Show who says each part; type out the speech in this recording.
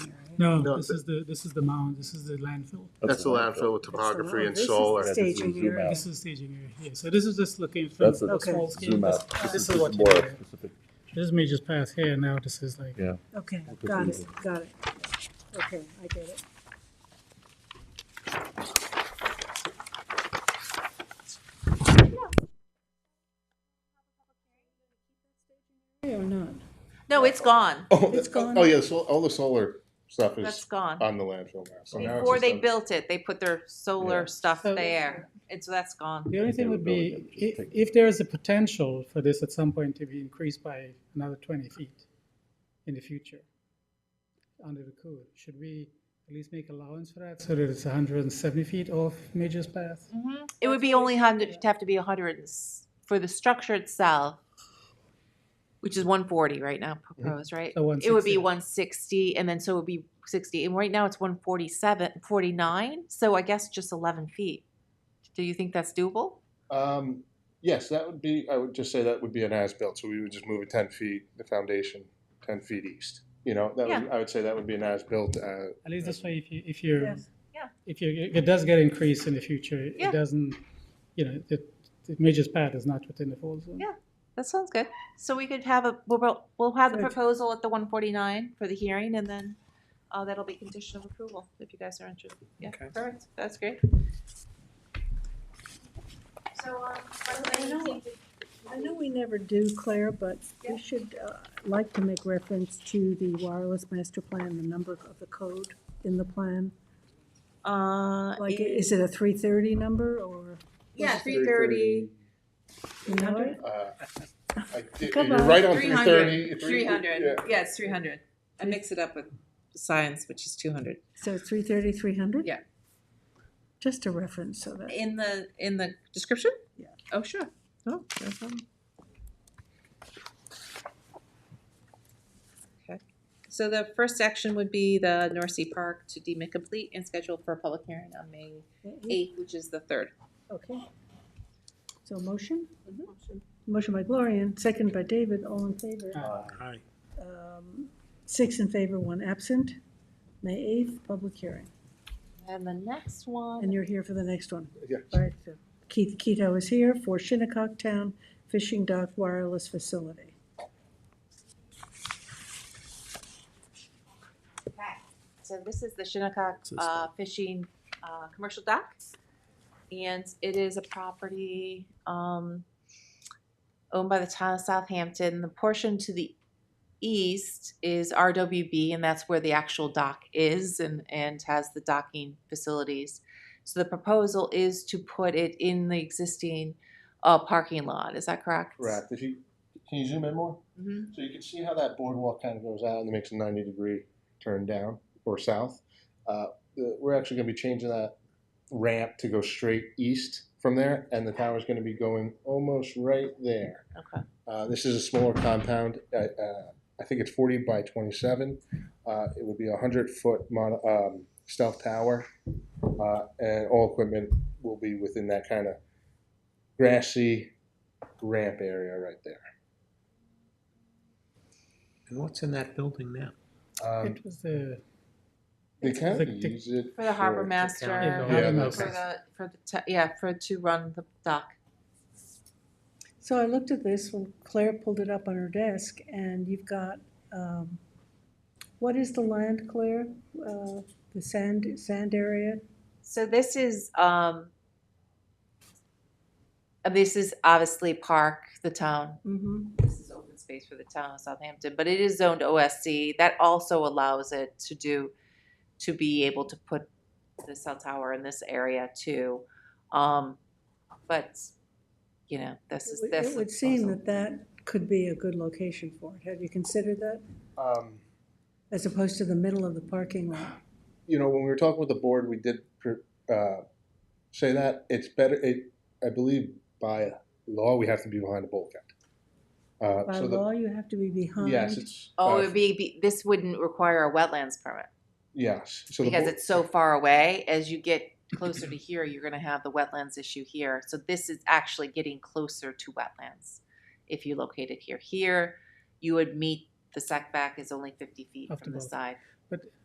Speaker 1: No,
Speaker 2: No,
Speaker 1: this
Speaker 2: the-
Speaker 1: is the, this is the mound, this is the landfill.
Speaker 3: Oh.
Speaker 2: That's the landfill with topography and solar.
Speaker 4: This
Speaker 3: That's
Speaker 4: is the staging
Speaker 3: zoom
Speaker 4: area.
Speaker 3: out.
Speaker 1: This is staging area here, so this is just looking from
Speaker 3: That's
Speaker 1: the
Speaker 3: a
Speaker 4: Okay.
Speaker 1: small scale.
Speaker 3: zoom
Speaker 1: This-
Speaker 3: out.
Speaker 1: This
Speaker 3: just
Speaker 1: is what you
Speaker 3: more
Speaker 1: do. here.
Speaker 3: specific.
Speaker 1: This may just pass here, now this is like,
Speaker 3: Yeah,
Speaker 4: Okay,
Speaker 3: Okay,
Speaker 4: got
Speaker 3: so-
Speaker 4: it, got it. Okay, I get it. Hey, Or not?
Speaker 5: No, it's gone.
Speaker 2: Oh,
Speaker 4: It's gone.
Speaker 2: oh, yeah, so, all the solar stuff
Speaker 5: That's
Speaker 2: is
Speaker 5: gone.
Speaker 2: on the landfill now. Oh, So now it's
Speaker 5: Before
Speaker 2: just
Speaker 5: they
Speaker 2: on-
Speaker 5: built it, they put their solar stuff
Speaker 1: So-
Speaker 5: there. It's, that's gone.
Speaker 1: the only thing would be,
Speaker 3: Availability, just
Speaker 1: if,
Speaker 3: take-
Speaker 1: if there is a potential for this at some point to be increased by another twenty feet in the future, under the code, should we at least make allowance for that, so that it's hundred and seventy feet off Major's Path?
Speaker 4: Mm-hmm.
Speaker 5: It would be only hundred, it'd have to be a hundred for the structure itself, which is one forty right now
Speaker 2: Mm-hmm.
Speaker 5: proposed, right?
Speaker 1: So
Speaker 5: It would
Speaker 1: 160.
Speaker 5: be one sixty and then so it would be sixty. And right now it's 147, 49. so I guess just eleven feet. Do you think that's doable?
Speaker 2: Um, yes, that would be, I would just say that would be an as-built, so we would just move it ten feet, the foundation, ten feet east. You know, that would, I would say that would be an as-built, uh,
Speaker 1: At least this way, if you, if you're,
Speaker 4: Yes.
Speaker 5: Yeah.
Speaker 1: if you, if it does get increased in the future,
Speaker 5: Yeah.
Speaker 1: it doesn't, you know, it, the Major's Path is not within the fall zone.
Speaker 5: Yeah. That sounds good. So we could have a, we'll, we'll have the
Speaker 4: Good.
Speaker 5: proposal at the one forty-nine for the hearing and then, uh, that'll be condition of approval if you guys are interested. Yeah, perfect. That's great.
Speaker 6: So, um,
Speaker 4: I
Speaker 6: by the
Speaker 4: know.
Speaker 6: way,
Speaker 4: I know we never do, Claire, but we should uh, like to make reference to the wireless master plan, the number of the code in the plan.
Speaker 5: Uh,
Speaker 4: Like, is it a three thirty number or?
Speaker 5: yeah, three thirty.
Speaker 4: you know it?
Speaker 2: uh, I did-
Speaker 4: Come
Speaker 2: you're
Speaker 4: on.
Speaker 2: right on
Speaker 5: Three
Speaker 2: three
Speaker 5: hundred.
Speaker 2: thirty.
Speaker 5: Three
Speaker 2: Yeah,
Speaker 5: hundred. Yeah, it's three hundred. I mix it up with science, which is two hundred.
Speaker 4: So three thirty, three hundred?
Speaker 5: Yeah.
Speaker 4: Just a reference so that,
Speaker 5: In the, in the description?
Speaker 4: Yeah.
Speaker 5: Oh, sure. Oh, no problem. Okay. So the first action would be the North Sea Park to deem it complete and scheduled for a public hearing on May eighth, which is the third.
Speaker 4: okay. So motion? Motion by Gloria and second by David, all in favor. Um, Six in favor, one absent. May eighth, public hearing.
Speaker 5: And the next one.
Speaker 4: And you're here for the next one.
Speaker 2: Yeah.
Speaker 4: Right, so Keith Keto is here for Shinnecock Town Fishing Dock Wireless Facility.
Speaker 5: Okay, so this is the Shinnecock uh, Fishing uh, Commercial Dock. And it is a property um, owned by the town of Southampton. The portion to the east is RWB, and that's where the actual dock is and, and has the docking facilities. So the proposal is to put it in the existing uh, parking lot, is that correct?
Speaker 2: Correct. If you, can you zoom in more?
Speaker 5: Mhm.
Speaker 2: So you can see how that boardwalk kind of goes out and it makes a 90 degree turn down or south. Uh, the- we're actually going to be changing that ramp to go straight east from there, and the tower's going to be going almost right there.
Speaker 5: Okay.
Speaker 2: Uh, this is a smaller compound. Uh, uh, I think it's 40 by 27. Uh, it would be a 100 foot mon- um, stealth tower, uh, and all equipment will be within that kind of grassy ramp area right there.
Speaker 7: And what's in that building now?
Speaker 2: Um,
Speaker 1: It was the,
Speaker 2: They can
Speaker 1: the- the-
Speaker 2: use it
Speaker 5: For the harbor
Speaker 2: for-
Speaker 5: master,
Speaker 7: Yeah,
Speaker 2: Yeah,
Speaker 1: that's-
Speaker 5: for the, for the, te- yeah, for to run the dock.
Speaker 4: So I looked at this when Claire pulled it up on her desk, and you've got, um, what is the land, Claire? Uh, The sand, sand area?
Speaker 5: So this is um uh, this is obviously park, the town.
Speaker 4: Mm-hmm.
Speaker 5: This is open space for the town of Southampton, but it is zoned OSC. That also allows it to do to be able to put the cell tower in this area too. Um but you know, this is this
Speaker 4: It would
Speaker 5: is
Speaker 4: seem
Speaker 5: also-
Speaker 4: that that could be a good location for it. Have you considered that?
Speaker 2: Um,
Speaker 4: As opposed to the middle of the parking lot?
Speaker 2: you know, when we were talking with the board, we did uh, say that it's better. It, I believe, by law, we have to be behind a bulkhead. Uh,
Speaker 4: By
Speaker 2: so the,
Speaker 4: law, you have to be behind.
Speaker 2: yes, it's
Speaker 5: Oh,
Speaker 2: uh,
Speaker 5: it would be, be this wouldn't require a wetlands permit.
Speaker 2: yes. So
Speaker 5: because
Speaker 2: the bo-
Speaker 5: it's so far away, as you get closer to here, you're gonna have the wetlands issue here. So this is actually getting closer to wetlands. If you locate it here, here, you would meet, the setback is only fifty feet
Speaker 1: Up to
Speaker 5: from the
Speaker 1: both.
Speaker 5: side.